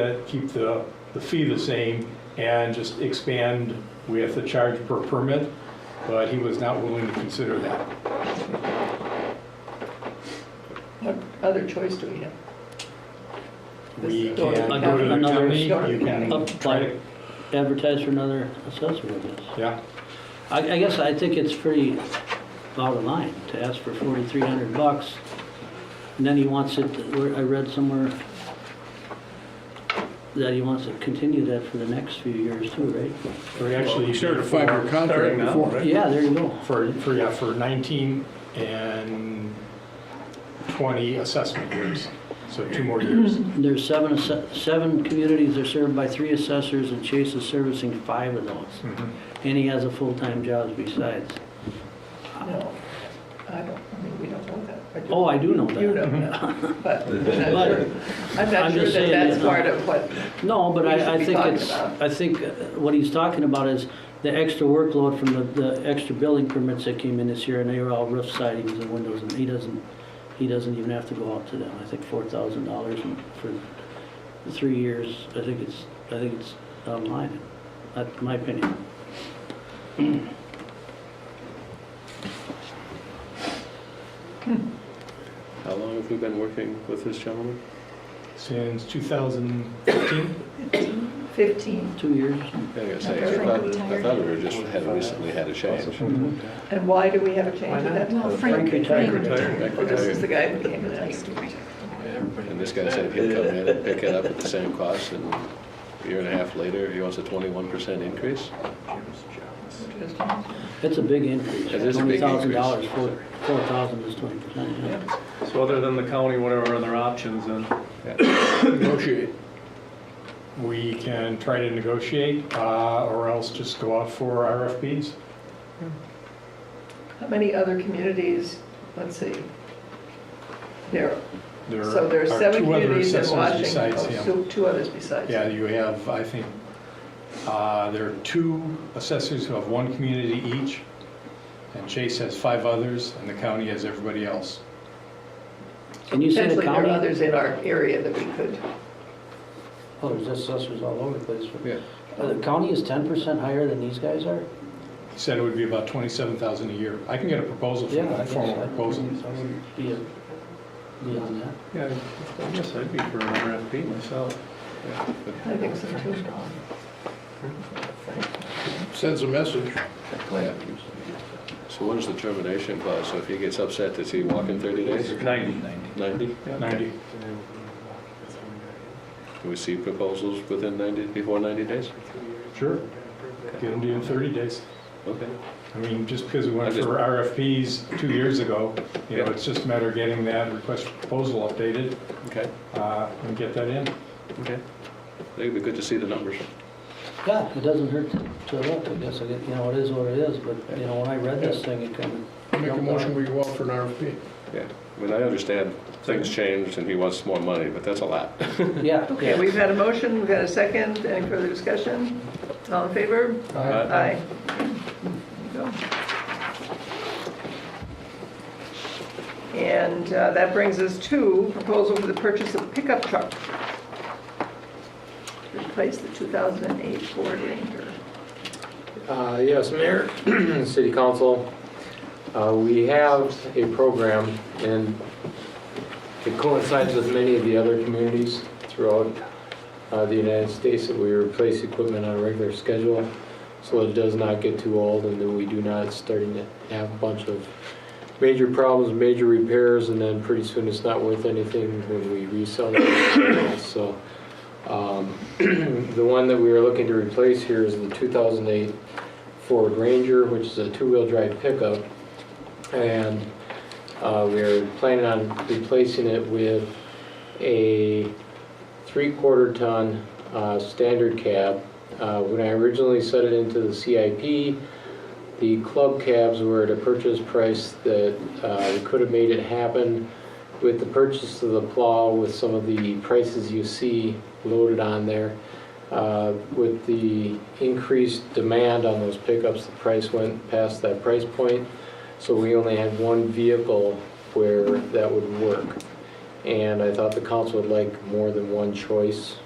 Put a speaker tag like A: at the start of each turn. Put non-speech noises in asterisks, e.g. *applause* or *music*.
A: uh, keep the, the fee the same and just expand with the charge per permit, but he was not willing to consider that.
B: What other choice do we have?
A: We can
B: This-
A: go to the
C: Another-
A: county, you can
C: Up-
A: try to,
C: advertise for another assessor, I guess.
A: yeah,
C: I, I guess I think it's pretty out of line to ask for forty-three hundred bucks, and then he wants it, where I read somewhere that he wants to continue that for the next few years too, right?
A: or actually.
D: You started a five-year contract
E: Starting now,
D: before.
E: right?
C: Yeah, there you go.
A: For, for, yeah, for 19 and 20 assessment years, so two more years.
C: There's seven, asse- seven communities are served by three assessors, and Chase is servicing five of those.
A: Mhm.
C: And he has a full-time job besides.
B: No, I don't, I mean, we don't know that. I do-
C: Oh, I do know
B: You
C: that.
B: don't
C: *laughs*
B: know, but I'm not
C: But-
B: sure, I'm not
C: I'm
B: sure that
C: just saying uh,
B: that's
C: it's not-
B: part of what,
C: No, but
B: We should
C: I, I
B: be
C: think
B: talking
C: it's,
B: about.
C: I think uh, what he's talking about is the extra workload from the, the extra building permits that came in this year, and they were all roof sidings and windows, and he doesn't, he doesn't even have to go out to them. I think four thousand dollars for three years, I think it's, I think it's out of line. That's my opinion.
E: How long have we been working with this gentleman?
A: Since 2015,
B: 15,
C: Two years.
F: Yeah, I gotta say, I thought, I thought we were just, had recently had a change.
B: and why do we have a change of that?
G: Well, Frank retired.
B: Well, this is the guy who came in.
G: Next
B: and-
G: door.
F: And this guy said he'll come in and pick it up at the same cost, and a year and a half later, he wants a twenty-one percent increase?
C: It's a big increase.
F: It is a big
C: Twenty thousand dollars,
F: increase.
C: four, four thousand is twenty percent, yeah.
E: So other than the county, whatever other options then?
D: Negotiate.
A: we can try to negotiate uh, or else just go out for RFPs.
B: How many other communities, let's see, there,
A: There
B: so there are seven
A: two other
B: communities in
A: assessors
B: Washington,
A: besides
B: oh,
A: him.
B: so two others besides.
A: Yeah, you have, I think, uh, there are two assessors who have one community each, and Chase has five others, and the county has everybody else.
C: Can you say the
B: Potentially, there are
C: county?
B: others in our area that we could,
C: Oh, there's assessors all over the place.
F: Yeah.
C: Uh, The county is ten percent higher than these guys are?
A: He said it would be about 27,000 a year. I can get a proposal from
C: Yeah, I
A: a
C: guess
A: formal
C: I-
A: proposal.
C: I wouldn't Be be on that.
E: Yeah, I guess I'd be for an RFP myself.
B: I think so too.
D: Sends a message.
F: So what is the termination clause? So if he gets upset, does he walk in thirty days?
E: Ninety.
F: Ninety?
A: 90.
F: Do we see proposals within ninety, before ninety days?
A: Sure. Get them to you in 30 days.
F: Okay.
A: I mean, just because we
F: I
A: went
F: just-
A: for RFPs two years ago, you know,
F: Yeah.
A: it's just a matter of getting that request for proposal updated
F: Okay,
A: uh, and get that in.
F: okay. I think it'd be good to see the numbers.
C: Yeah, it doesn't hurt to- to look, I guess, I guess, you know, it is what it is, but, you know, when I read this thing, it kind of.
D: Make a motion, we go out for an RFP.
F: Yeah, I mean, I understand things changed and he wants more money, but that's a lot.
C: Yeah,
B: Okay,
C: yeah.
B: we've had a motion, we've had a second, any further discussion? All in favor?
F: Aye.
B: Aye. There you go. And uh, that brings us to proposal for the purchase of a pickup truck to replace the 2008 Ford Ranger.
H: Uh, Yes, Mayor, *clears throat* City Council, uh, we have a program, and it coincides with many of the other communities throughout uh, the United States that we replace equipment on a regular schedule, so it does not get too old, and then we do not starting to have a bunch of major problems, major repairs, and then pretty soon it's not worth anything when we resell it. So um, *clears throat* The one that we are looking to replace here is the 2008 Ford Ranger, which is a two-wheel drive pickup. And uh, we are planning on replacing it with a three-quarter ton uh, standard cab. Uh, When I originally set it into the CIP, the club cabs were at a purchase price that uh, we could have made it happen with the purchase of the plow, with some of the prices you see loaded on there. Uh, With the increased demand on those pickups, the price went past that price point. So we only had one vehicle where that would work. And I thought the council would like more than one choice